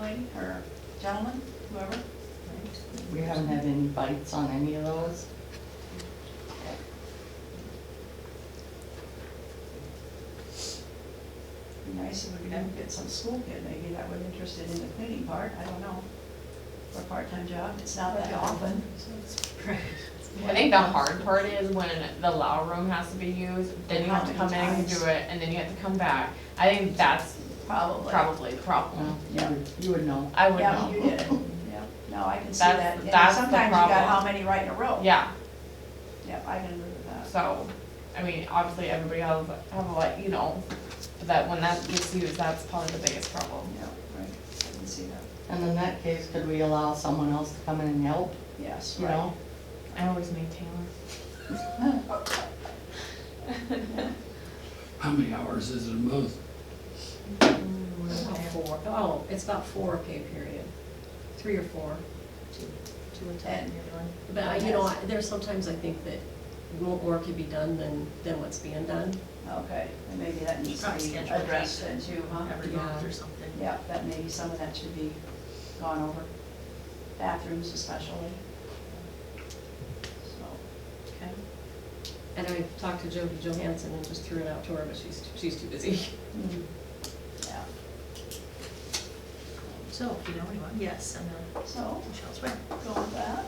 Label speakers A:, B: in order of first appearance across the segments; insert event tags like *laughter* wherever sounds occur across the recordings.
A: lady or gentleman, whoever.
B: We haven't had any bites on any of those.
A: Be nice if we could have- get some school kid maybe that was interested in the cleaning part, I don't know. For a part-time job, it's not that often.
C: I think the hard part is when the lounge room has to be used, then you have to come in and do it, and then you have to come back. I think that's
A: Probably.
C: probably the problem.
B: Well, Oh, Yeah, Um, you would know.
C: I would
A: Yeah, you
C: know.
A: did, yeah, no, I can see
C: That's-
A: that, and
C: that's the
A: sometimes you got
C: problem.
A: how many right in a row.
C: Yeah,
A: Yeah, I can agree with that.
C: so, I mean, obviously, everybody has, have a lot, you know, but that, when that gets used, that's probably the biggest problem.
A: Yeah, right, I can see that,
B: And in that case, could we allow someone else to come in and help,
A: yes,
B: you
A: right.
B: know?
C: I always need Taylor.
D: How many hours is it a month?
E: About four, oh, it's about four pay period, three or four.
F: Two and ten, you're doing.
E: But, I- you know, I- there's sometimes I think that more work could be done than, than what's being done.
A: Okay, and maybe that needs
F: Probably
A: to be
F: schedule a
A: addressed then too, huh?
F: every month or something.
A: Yeah, that maybe some of that should be gone over, bathrooms especially. So, okay,
E: And I talked to Jody Johansson and just threw it out to her, but she's, she's too busy.
A: Mm, yeah,
F: So if you know anyone, yes, and then
A: so,
F: Michelle's right.
A: go with that.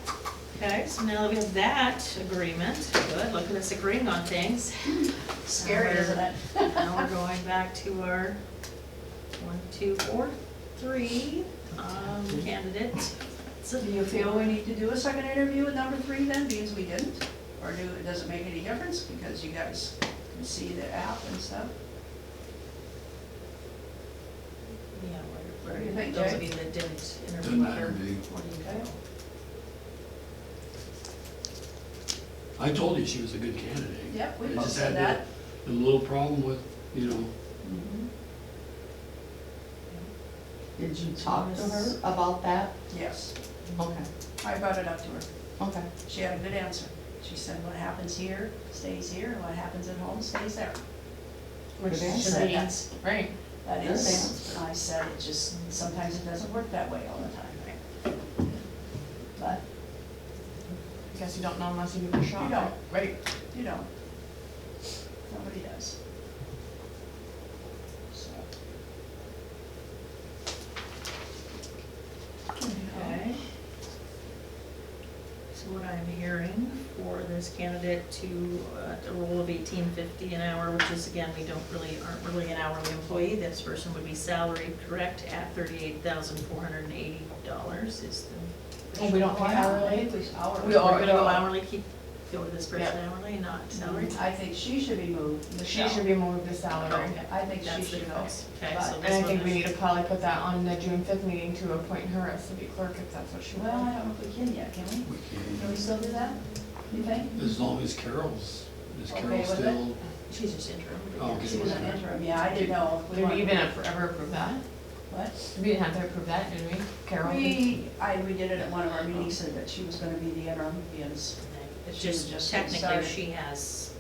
F: Okay, so now that we have that agreement, good, look at us agreeing on things.
A: Hmm, Scary, isn't it?
F: Now we're going back to our one, two, four, three, um, candidate.
A: So do you feel we need to do a second interview with number three then, because we didn't? Or do, it doesn't make any difference, because you guys can see the app and stuff?
F: Yeah,
A: What do you think,
F: Those
A: Jay?
F: of you that didn't
D: Doesn't
F: interview
D: matter
F: her,
D: to me.
F: what do you
A: Okay.
F: know?
D: I told you she was a good candidate.
A: Yep, we
D: I
A: both
D: just
A: said
D: had
A: that. Mm-hmm.
D: A little problem with, you know,
B: Did you talk to her about that?
A: Yes,
B: Okay,
A: I brought it up to her.
B: okay.
A: She had a good answer. She said, what happens here stays here, and what happens at home stays there.
B: Good
A: She
B: answer.
A: said, that's,
C: Right,
A: that
B: Good
A: is,
B: answer.
A: I said, it just, sometimes it doesn't work that way all the time. But
C: I guess you don't know unless you give it a shot.
A: You don't.
C: Right.
A: you don't. Nobody does. So.
F: Okay. So what I'm hearing for this candidate to, uh, the role of eighteen fifty an hour, which is again, we don't really, aren't really an hourly employee. This person would be salaried, correct, at thirty-eight thousand four hundred and eighty dollars is the.
C: Oh, we don't pay hourly?
F: We are gonna go hourly, keep, go with this person hourly, not salary?
A: I think she should be moved,
C: She
A: Michelle.
C: should be moved to salary.
F: Okay,
A: I think she
F: that's the
A: should go.
F: difference. Okay,
A: But-
F: so
C: And I
F: this
C: think
F: one
C: we need
F: is,
C: to probably put that on the June fifth meeting to appoint her as city clerk if that's what she
A: Well, I
C: wants.
A: don't know if we can yet, can we?
D: we
A: Can we
D: can,
A: still do that, you think?
D: as long as Carol's, is
A: Okay
D: Carol
A: with it?
D: still?
F: she's just interim.
D: Oh, okay.
A: She was an interim, yeah, I didn't know. if
C: Did
A: want-
C: we even ever approve that?
A: What?
C: We didn't have to approve that, did we? Carol?
A: We, I, we did it at one of our meetings, said that she was gonna be the interim, because,
F: It's
A: She was just
F: just
A: getting
F: technically,
A: started.
F: she has,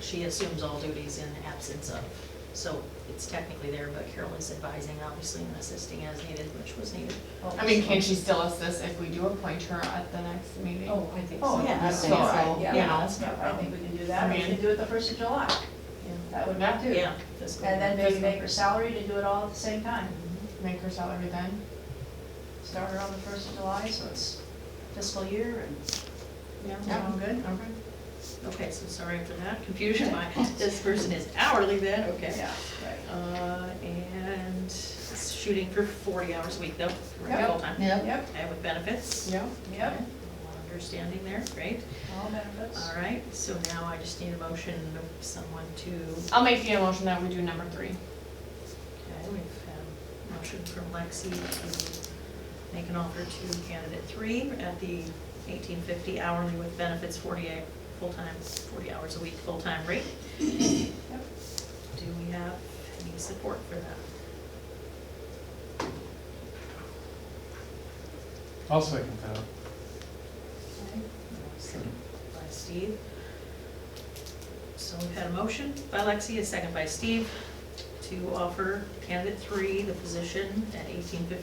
F: she assumes all duties in absence of. So it's technically there, but Carol is advising, obviously, and assisting as needed, which was needed.
A: oh,
C: I mean, can she still assist if we do appoint her at the next meeting?
E: Oh, I think
A: Oh,
E: so.
F: yeah.
B: I
C: So,
B: think so.
C: you
A: Yeah,
C: know,
A: that's- yeah, I think we can do that, we
C: I mean-
A: can do it the first of July, that would not do.
F: Yeah. fiscal
A: And then
F: year.
A: maybe make her salary to do it all at the same time,
C: make her salary then.
A: start her on the first of July, so it's fiscal year and,
F: Yeah.
A: sound good?
C: Okay.
F: Okay, so sorry for that
A: *laughs*
F: confusion. My- This person is hourly then, okay.
A: Yeah, right.
F: Uh, and shooting for forty hours a week though,
A: Yep.
F: right, full time,
B: Yeah,
A: Yep,
F: and with benefits.
C: Yeah.
A: yep,
F: Understanding there, great.
A: all benefits.
F: All right, so now I just need a motion of someone to, okay,
C: I'll make the motion that we do number three.
F: we've had a motion from Lexi to make an offer to candidate three at the eighteen fifty hourly with benefits, forty-eight, full-time, forty hours a week, full-time rate. Do we have any support for that?
G: I'll second that.
F: Second By Steve. So we've had a motion by Lexi, a second by Steve, to offer candidate three the position at eighteen fifty